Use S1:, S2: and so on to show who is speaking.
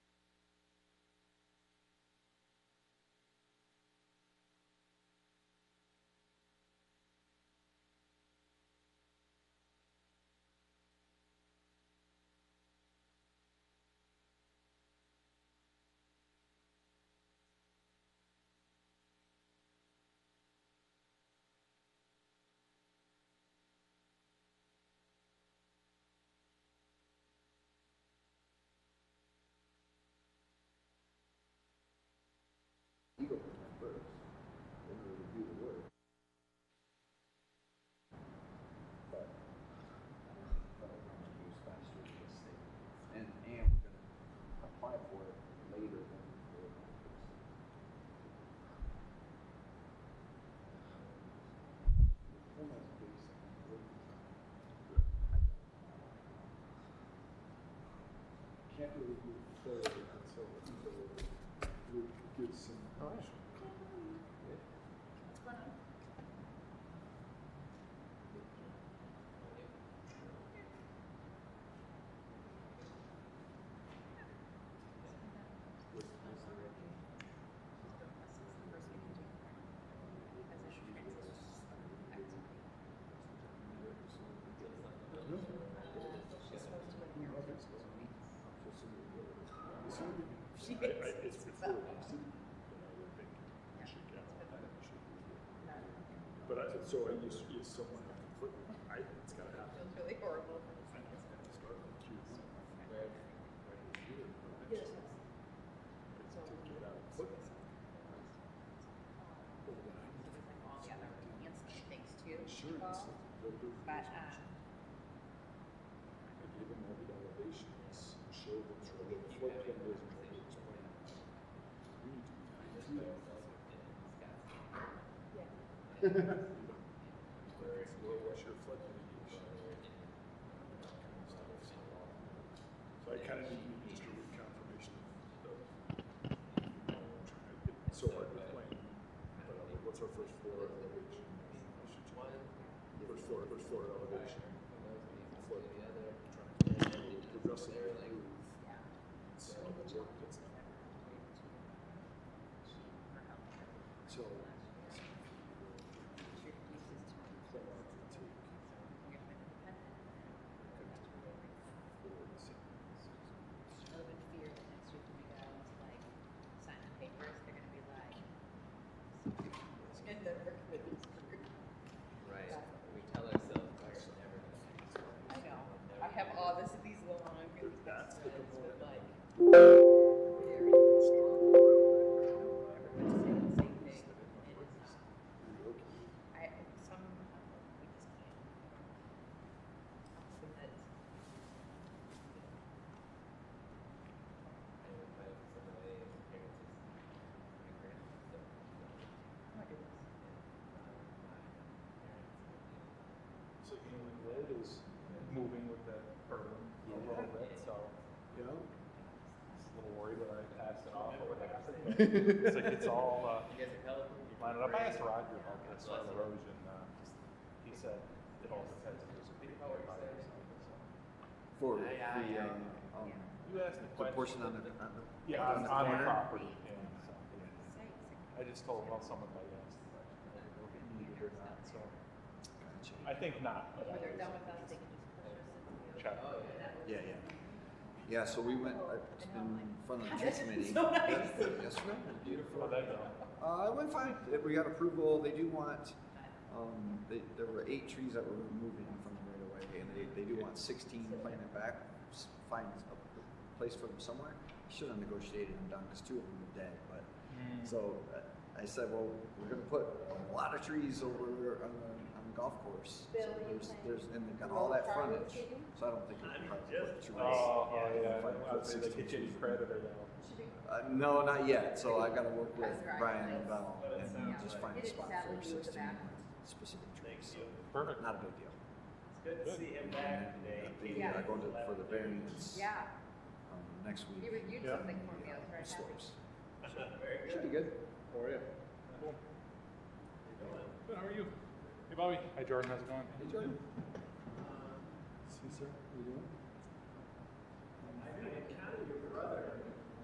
S1: Oh,
S2: She
S1: I- I-
S2: is.
S1: It's before last week, but I would think
S2: Yeah.
S1: we should get on that, we should do it. But I, so I used, is someone, I, it's gotta
S2: It
S1: happen.
S2: feels really horrible for the
S1: I know,
S2: second.
S1: it's gotta start with Q.
S2: Yes.
S1: But to get out of foot. Well, then I need to
S2: With like all the other ancillary things too.
S1: get Insurance.
S2: involved.
S1: Go do
S2: But,
S1: insurance.
S2: um,
S1: I gave them all the elevations, showed them sort of the flood plan is, and tried to explain. We need to be behind you.
S2: yeah.
S1: Well, what's your flood mitigation? So I kind of need to just a reconfirmation of, of, trying to get, so hard with plan. But I'm like, what's our first floor elevation? I should check. First floor, first floor elevation. Flood, trying to progressively improve. So the work that's not. So. From our critique.
S2: Urban fear that next week when we go to like sign the papers, they're gonna be like. And the work with this group.
S3: Right, we tell ourselves we're never
S2: I
S3: gonna.
S2: know, I have all this, these long.
S1: That's the
S2: threads, but,
S1: component.
S2: like, very strong. Everyone's saying the same thing, and it's not. I, some, we just can't. So that's.
S3: And with my, some of my experiences, my grandparents don't. don't-
S2: Oh my goodness.
S4: So England Lit is moving with that urban a little bit, so
S1: Yeah,
S4: I was a little worried when I passed it off or what happened. It's like it's all uh,
S3: You guys are California. you're
S4: lined up. I asked Roger about this soil
S3: Lots of-
S4: erosion. Uh, he said it all depends if there's a big fire by it.
S5: For
S3: Aye, aye,
S5: the,
S3: aye.
S5: um, um,
S4: You asked the
S5: the
S4: question.
S5: portion on the, on the.
S4: Yeah, on,
S5: on the
S4: on the
S5: corner.
S4: property. And so, yeah.
S2: Say it's like-
S4: I just told him, well, someone might ask the question, whether it'll be needed uh, or not. So
S5: Gotcha.
S4: I think not, but I
S2: When they're done
S4: was
S2: with us, they can just push us into the Oh, other.
S4: check.
S5: Yeah, yeah. Yeah, so we went, I- it's been in front of the tree committee.
S2: So nice.
S5: Yeah, Yesterday, beautiful.
S4: Well, there you go.
S5: Uh, it went fine. It- We got approval. They do want, um, they, there were eight trees that were removed from the right of way and they, they do want sixteen planted back. S- Find a place for them somewhere. Should have negotiated them down because two of them were dead, but So uh, I said, well, we're gonna put a lot of trees over on the, on the golf course. So
S2: Bill, you
S5: there's,
S2: think-
S5: there's, and they got all that
S2: Farm
S5: frontage,
S2: city?
S5: so I don't think we can probably put
S1: uh,
S5: trees.
S4: Oh, oh, yeah.
S5: If I put
S4: I was gonna
S5: 16
S4: get you any
S5: trees.
S4: credit or no.
S2: Should we-
S5: Uh, no, not yet, so I gotta work with
S2: That's right.
S5: Brian Novell
S3: But it
S5: and
S3: sounds
S5: just
S3: like-
S5: find a
S2: It is
S5: spot
S2: sadly
S5: for
S2: you with the
S5: sixteen
S2: back.
S5: specific trees, so,
S4: Perfect.
S5: not a big deal.
S3: Good to see him back today.
S5: And then,
S2: Yeah.
S5: uh, going to, for the variance, um,
S2: Yeah,
S5: next week.
S2: he reviewed
S1: Yeah.
S2: something for me, I was very happy.
S5: Slopes.
S3: Very
S5: Should be
S3: good.
S5: good. How are you?
S4: Good, how are you? Hey, Bobby. Hi, Jordan. How's it going?
S5: Hey, Jordan. See, sir, how you doing?
S3: I know, kind of your brother.